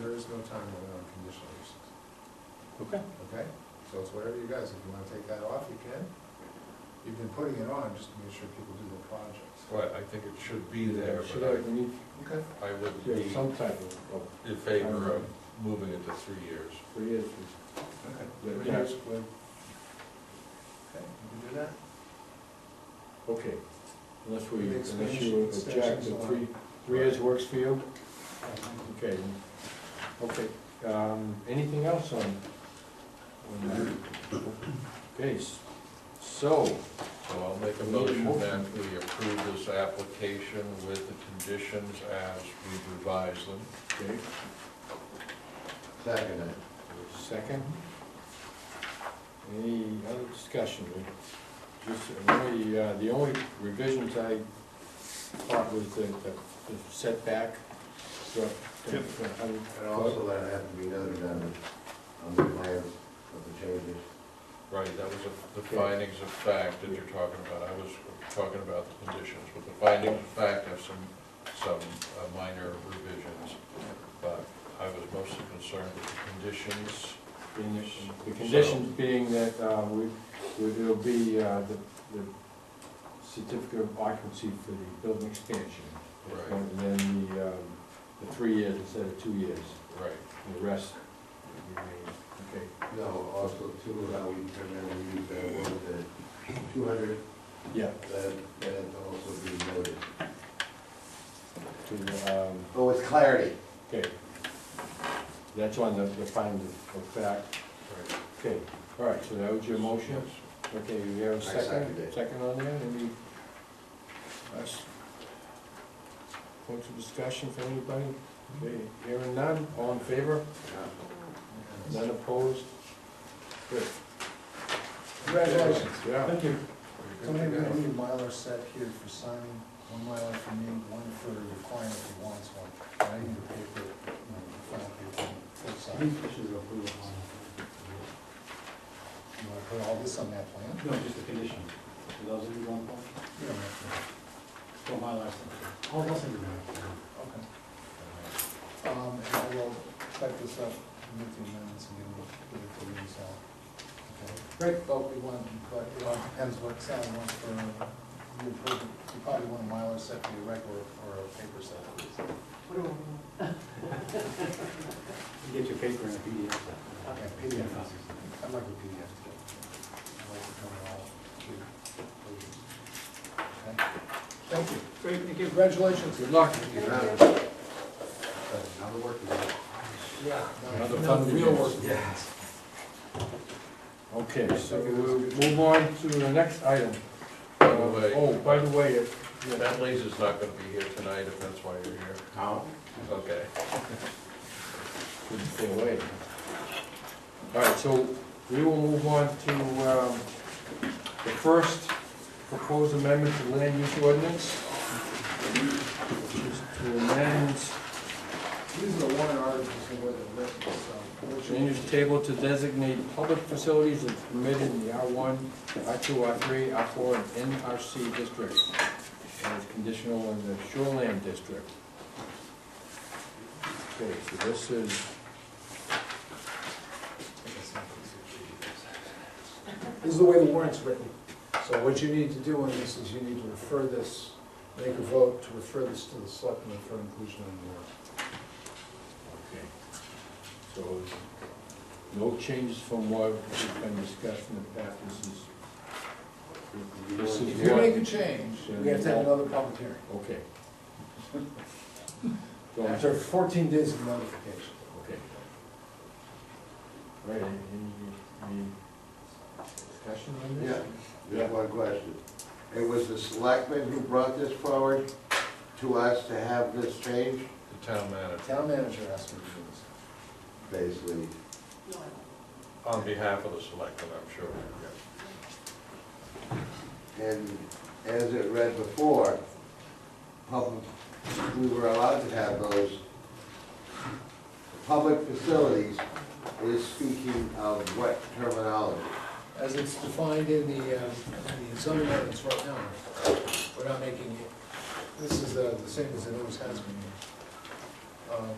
time limit on conditional uses, Okay. okay? So it's whatever you guys, if you wanna take that off, you can. You've been putting it on just to make sure people do their projects. Well, I think it should be there, Should I, but we need, Okay. I I would yeah, be some type of, of, in favor of moving it to three years. three years. Okay. Yeah, Three yeah. years would- Okay, you can do that? Okay, unless we, The unless expansion- you object, expansion's the allowed. three, three years works for you? Okay, okay, um, anything else on? on that? Okay, s- so, So I'll make a We need a motion motion. that we approve this application with the conditions as we revise them. okay, Second. second. Any other discussion? We- Just, the only, uh, the only revisions I thought was the, the the setback. the- the- Yep. the hundred And also that has to be noted on the, on the plans of the changes. Right, that was a- the Okay. findings of fact that you're talking about. I was talking about the conditions, but the findings of fact have some, some uh, minor revisions. But I was mostly concerned with the conditions. being that- The conditions being that uh, we, we- it'll be uh, the the certificate of occupancy for the building expansion. Right, And then the, um, the three years instead of two years, right. the rest remain, okay. No, also too, how we primarily use that word, the two hundred, Yeah, that, that also be noted. to, um, Oh, it's clarity. okay. That's on the, the finding of fact. Right. Okay, all right, so that was your motion? Yes. Okay, you have a I second second, it. second on there, any last points of discussion for anybody? Okay, hearing none, all in favor, none opposed? Good. Congratulations. Yeah, Thank you. Very So good. maybe we need a miler set here for signing, one miler for me, one for the client if he wants one. And I need the paper, you know, the final paper, full sign. You wanna put all this on that plan? No, just the condition. For those of you who want one, You don't have go my last one. Oh, I'll listen to to. Okay. Um, and I will type this up, make the amendments and then we'll give it to Lee, so. okay? Great. But we want, but it all depends what Sal wants for, you probably- you probably want a miler set for your regular or a paper set. You get your paper and a PDF. Okay, PDF. I'd like a PDF too. I'd like to come all three pages. Okay? Thank you. Great, thank you. Congratulations. Good luck. Another work. Yeah. Another fun Real begins. work. okay, so we'll move on to the next item. By the way- Oh, by the way, it- yeah. That laser's not gonna be here tonight, if that's why you're here. How? Okay. Couldn't stay away. All right, so we will move on to um, the first proposed amendment to land use ordinance. which is To amend These are the warrant articles and where they're written, so. what you- land use table to designate public facilities as permitted in the R1, R2, R3, R4, and NRC districts. And it's conditional in the shoreland district. Okay, so this is This is the way the warrant's written. So what you need to do on this is you need to refer this, make a vote to refer this to the selectmen for inclusion in the warrant. Okay. So, no changes from what has been discussed in the past, this is. This If is you make what, a change, we have to have another public hearing. okay. So, After fourteen days of notification. Okay. All right, any, any discussion on Yeah, this? just one question. It was the selectmen who brought this forward to us to have this change? The town The manager, town manager asked me to do this. Basically, on behalf of the selectmen, I'm sure. yeah. And as it read before, public, we were allowed to have those. Public facilities is speaking of what terminology? As it's defined in the, uh, in the zoning ordinance right now, we're not making it, this is uh, the same as it always has been. Um,